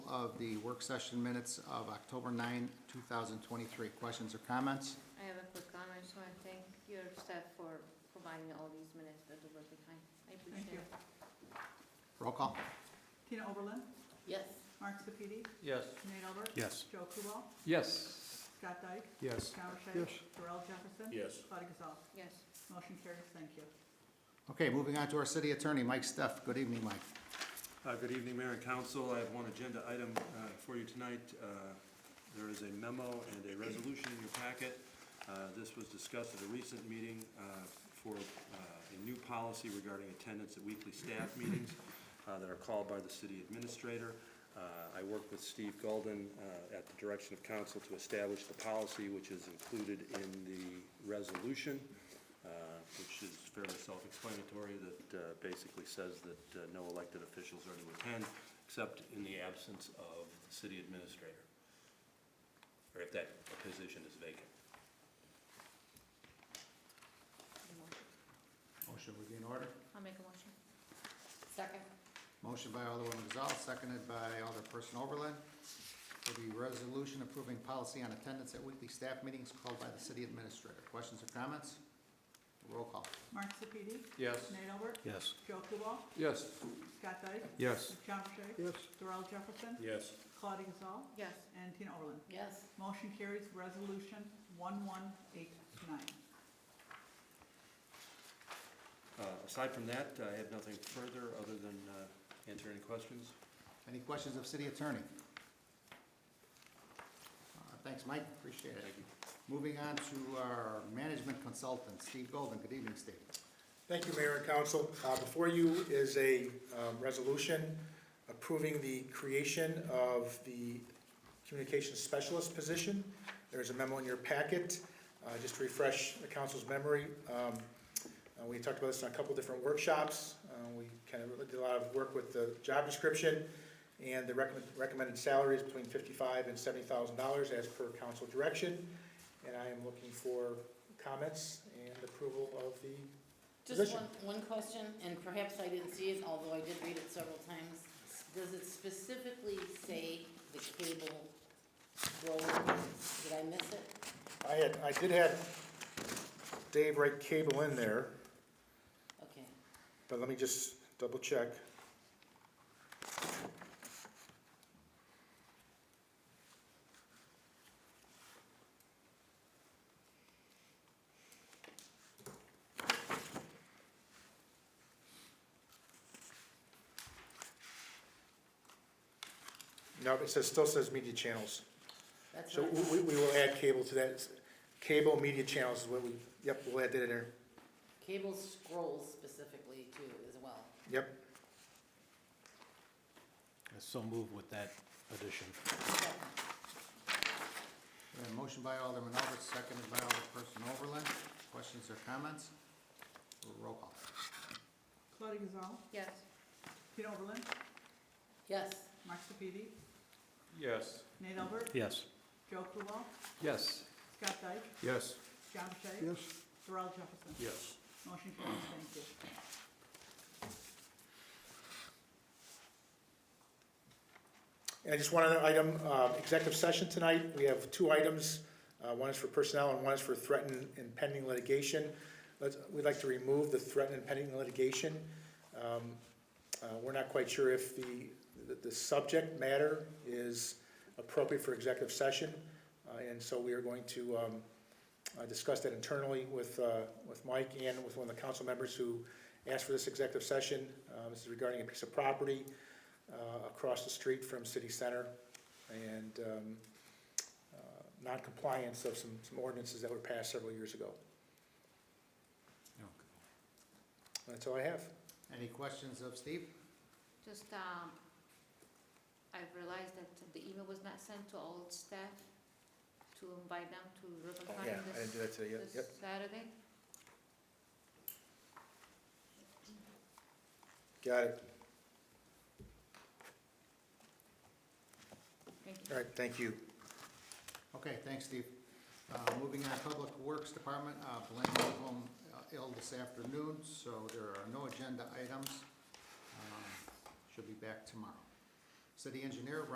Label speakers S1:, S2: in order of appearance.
S1: of the work session minutes of October 9, 2023. Questions or comments?
S2: I have a quick comment. I just want to thank your staff for providing all these minutes at the working time. I
S3: Thank you.
S2: appreciate it.
S1: Roll call.
S3: Tina Oberlin,
S2: Yes.
S3: Mark Sepiti,
S4: Yes.
S3: Nate Albert.
S5: Yes.
S3: Joe Kubal,
S4: Yes.
S3: Scott Dyke,
S5: Yes.
S3: John Rashay.
S5: Yes.
S3: Darrell Jefferson.
S4: Yes.
S3: Claudia Gazal.
S2: Yes.
S3: Motion carries, thank you.
S1: Okay, moving on to our city attorney, Mike Steph. Good evening, Mike.
S6: Uh, Good evening, Mayor and Council. I have one agenda item uh, for you tonight. Uh, There is a memo and a resolution in your packet. Uh, This was discussed at a recent meeting uh, for uh, a new policy regarding attendance at weekly staff meetings uh, that are called by the city administrator. Uh, I worked with Steve Golden uh, at the direction of council to establish the policy, which is included in the resolution uh, which is fairly self-explanatory, that uh, basically says that uh, no elected officials are to attend, except in the absence of the city administrator, or if that position is vacant.
S1: Motion would be in order.
S2: I'll make a motion. Second.
S1: Motion by Alderwoman Giselle, seconded by Alderperson Oberlin, for the resolution approving policy on attendance at weekly staff meetings called by the city administrator. Questions or comments? Roll call.
S3: Mark Sepiti,
S4: Yes.
S3: Nate Albert,
S5: Yes.
S3: Joe Kubal,
S4: Yes.
S3: Scott Dyke,
S5: Yes.
S3: John Rashay.
S5: Yes.
S3: Darrell Jefferson,
S4: Yes.
S3: Claudia Gazal,
S2: Yes.
S3: and Tina Oberlin.
S2: Yes.
S3: Motion carries, resolution one one eight nine.
S6: Uh, Aside from that, I have nothing further, other than uh, answer any questions.
S1: Any questions of city attorney? Uh, Thanks, Mike, appreciate it.
S6: Thank you.
S1: Moving on to our management consultant, Steve Golden. Good evening, Steve.
S7: Thank you, Mayor and Council. Uh, Before you is a um, resolution approving the creation of the communications specialist position. There is a memo in your packet. Uh, Just to refresh the council's memory, um, uh, we talked about this in a couple different workshops. Uh, We kind of did a lot of work with the job description, and the recommend- recommended salary is between $55,000 and $70,000 as per council direction. And I am looking for comments and approval of the
S8: Just
S7: Position.
S8: one, one question, and perhaps I didn't see it, although I did read it several times. Does it specifically say the cable road? Did I miss it?
S7: I had, I did have Dave write cable in there,
S8: Okay.
S7: but let me just double check. No, it says, still says media channels.
S8: That's
S7: So
S8: what,
S7: we, we will add cable to that, cable media channels is what we, yep, we'll add that in there,
S8: cable scrolls specifically too as well.
S7: yep.
S5: So move with that addition.
S1: We have a motion by Alderman Albert, seconded by Alderperson Overland. Questions or comments? Roll call.
S3: Claudia Gazal,
S2: Yes.
S3: Tina Oberlin,
S8: Yes,
S3: Mark Sepiti,
S4: Yes.
S3: Nate Albert,
S5: Yes.
S3: Joe Kubal,
S4: Yes.
S3: Scott Dyke,
S5: Yes.
S3: John Rashay. Yes. Darrell Jefferson.
S4: Yes.
S3: Motion carries, thank you.
S7: And just one other item, uh, executive session tonight, we have two items. Uh, One is for personnel and one is for threatened and pending litigation. Let's, we'd like to remove the threatened and pending litigation. Um, uh, We're not quite sure if the, the- the subject matter is appropriate for executive session. uh, And so we are going to um, uh, discuss that internally with, uh, with Mike and with one of the council members who asked for this executive session. Uh, This is regarding a piece of property uh, across the street from City Center and um, uh, noncompliance of some some ordinances that were passed several years ago. That's all I have.
S1: Any questions of Steve?
S2: Just, um, I realized that the email was not sent to all staff to invite them to ribbon cutting this,
S7: that today
S2: this Saturday.
S7: Got it.
S2: Thank you.
S7: All right, thank you.
S1: Okay, thanks, Steve. Uh, Moving on, Public Works Department, uh, Blaine went home uh, ill this afternoon, so there are no agenda items. Um, She'll be back tomorrow. City engineer,